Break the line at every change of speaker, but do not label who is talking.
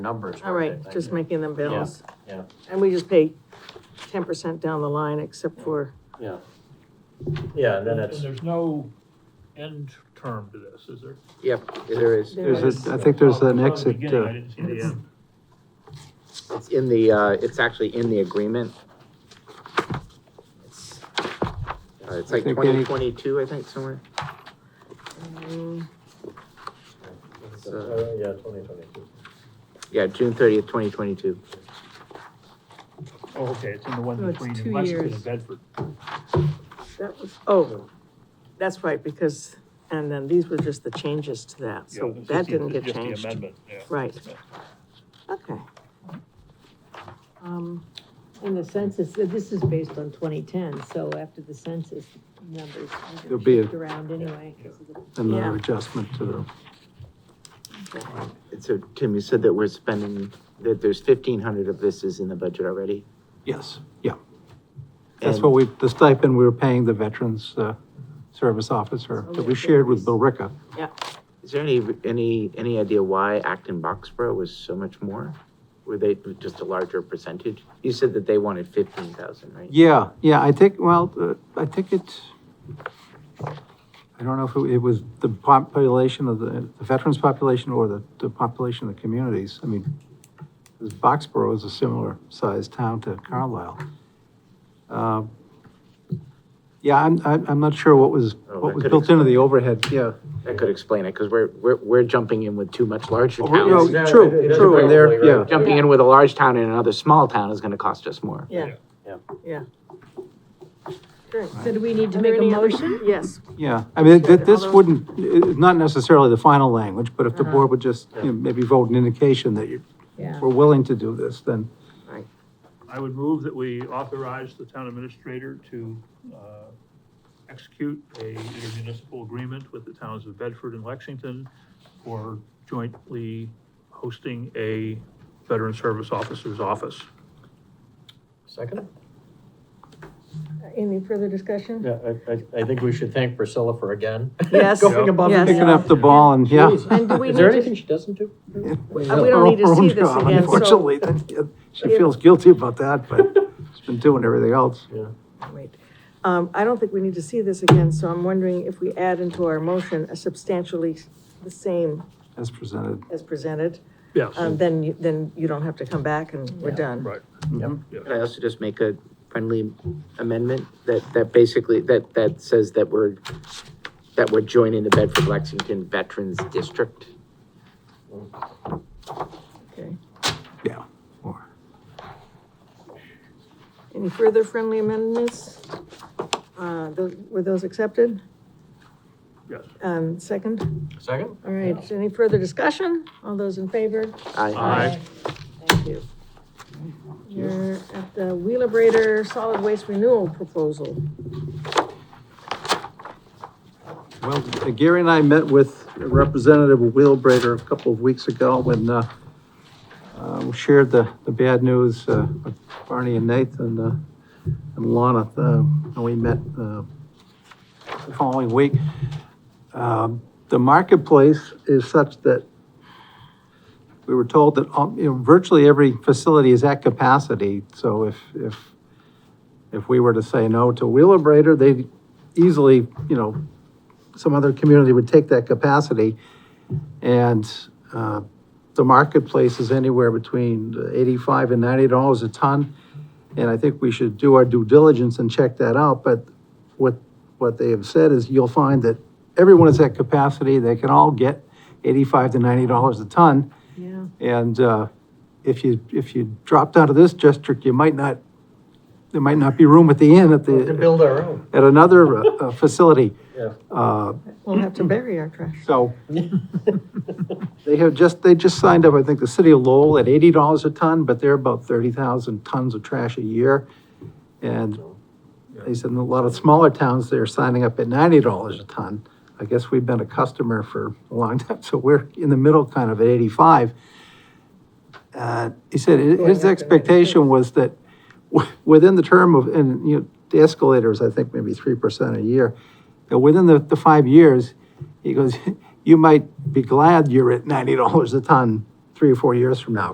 numbers.
All right, just making them balance.
yeah.
And we just pay ten percent down the line except for,
Yeah. Yeah, and then
And
it's,
there's no end term to this, is there?
Yep, there is.
There
There's a, I think there's an
Oh, it's on the
exit,
beginning, I
uh,
didn't see the end.
It's in the, uh, it's actually in the agreement. It's uh, it's like
I think
twenty
any-
twenty-two, I think, somewhere.
mm,
it's, uh, yeah, twenty twenty-two.
Yeah, June thirtieth, twenty twenty-two.
Oh, okay, it's in the
No,
one
it's
between
two
Lexington
years.
and Bedford.
that was, oh, that's right, because, and then these were just the changes to that,
Yeah,
so
it's
that
just the-
didn't
it's
get
just the
changed.
Amendment, yeah.
Right. Okay. Um,
And the census, uh, this is based on twenty ten, so after the census numbers, are
There'll
gonna
be a-
shift around anyway. 'cause of the-
Yeah.
another adjustment to the,
And so, Tim, you said that we're spending, that there's fifteen hundred of this is in the budget already?
yes, yeah. That's
And-
what we, the stipend we were paying the Veterans, uh, Service Officer that we shared with Bill Ricka.
Is there any, any, any idea why Acton Boxborough was so much more? Were they just a larger percentage? You said that they wanted fifteen thousand, right?
Yeah, yeah, I think, well, uh, I think it, I don't know if it- it was the population of the, the veterans population or the, the population of the communities. I mean, 'cause Boxborough is a similar sized town to Carlisle. Uh, Yeah, I'm, I'm, I'm not sure what was,
Oh,
what
that
was
could
built into the overhead, yeah.
That could explain it, because we're, we're, we're jumping in with two much larger
Oh, no,
towns.
Yeah,
True,
it- it-
true, and there,
probably,
yeah.
right.
Jumping in with a large town in another small town is gonna cost us more.
yeah.
Yeah.
Yeah. Great.
So do we need to
Are there
make a
any other-
motion?
Yes,
Yeah, I mean, th- this
Although-
wouldn't, it's not necessarily the final language, but if the
Uh-huh.
board would just, you know, maybe vote an indication that you
Yeah.
were willing to do this, then
I would move that we authorize the town administrator to, uh, execute a intermunicipal agreement with the towns of Bedford and Lexington for jointly hosting a veteran service officer's office.
Second?
any further discussion?
Yeah, I, I, I think we should thank Priscilla for again.
Yes.
Going above and
Yes.
picking up the ball and, yeah.
Jeez.
And do we
Is there
need to- Uh,
anything she doesn't do?
we don't need to
Her own
see this
job,
again, so-
Unfortunately, that- she feels guilty about that, but she's been doing everything else.
Wait. Um, I don't think we need to see this again, so I'm wondering if we add into our motion a substantially the same
As presented,
as presented,
Yes,
um, then, you- then you don't have to come back and we're done.
right.
Could I also just make a friendly amendment that, that basically, that, that says that we're, that we're joining the Bedford Lexington Veterans District?
Okay.
yeah. or-
Any further friendly amendments? Uh, tho- were those accepted?
Yes.
Um, second?
Second?
All right, any further discussion? All those in favor?
Aye.
Thank you. You're at the Wheelabrator Solid Waste Renewal Proposal.
Well, Gary and I met with Representative Wheelbrader a couple of weeks ago when, uh, uh, we shared the, the bad news, uh, with Barney and Nathan, uh, and Lana, uh, and we met, uh, the following week. Um, the marketplace is such that we were told that, um, you know, virtually every facility is at capacity, so if, if, if we were to say no to Wheelabrator, they'd easily, you know, some other community would take that capacity. And uh, the marketplace is anywhere between eighty-five and ninety dollars a ton. And I think we should do our due diligence and check that out, but what, what they have said is you'll find that everyone is at capacity, they can all get eighty-five to ninety dollars a ton.
Yeah.
And uh, if you, if you dropped out of this district, you might not, there might not be room at the inn at
To
the,
build our own.
at another uh, uh, facility.
Yeah.
Uh,
We'll have to bury our trash.
so they have just, they just signed up, I think, the city of Lowell at eighty dollars a ton, but they're about thirty thousand tons of trash a year. And they said in a lot of smaller towns, they're signing up at ninety dollars a ton. I guess we've been a customer for a long time, so we're in the middle kind of at eighty-five. Uh, he said hi-
Going up
his
to
expectation was that w- within the term of, and you know, the escalators, I think maybe three percent a year. that Within the, the five years, he goes, you might be glad you're at ninety dollars a ton three or four years from now,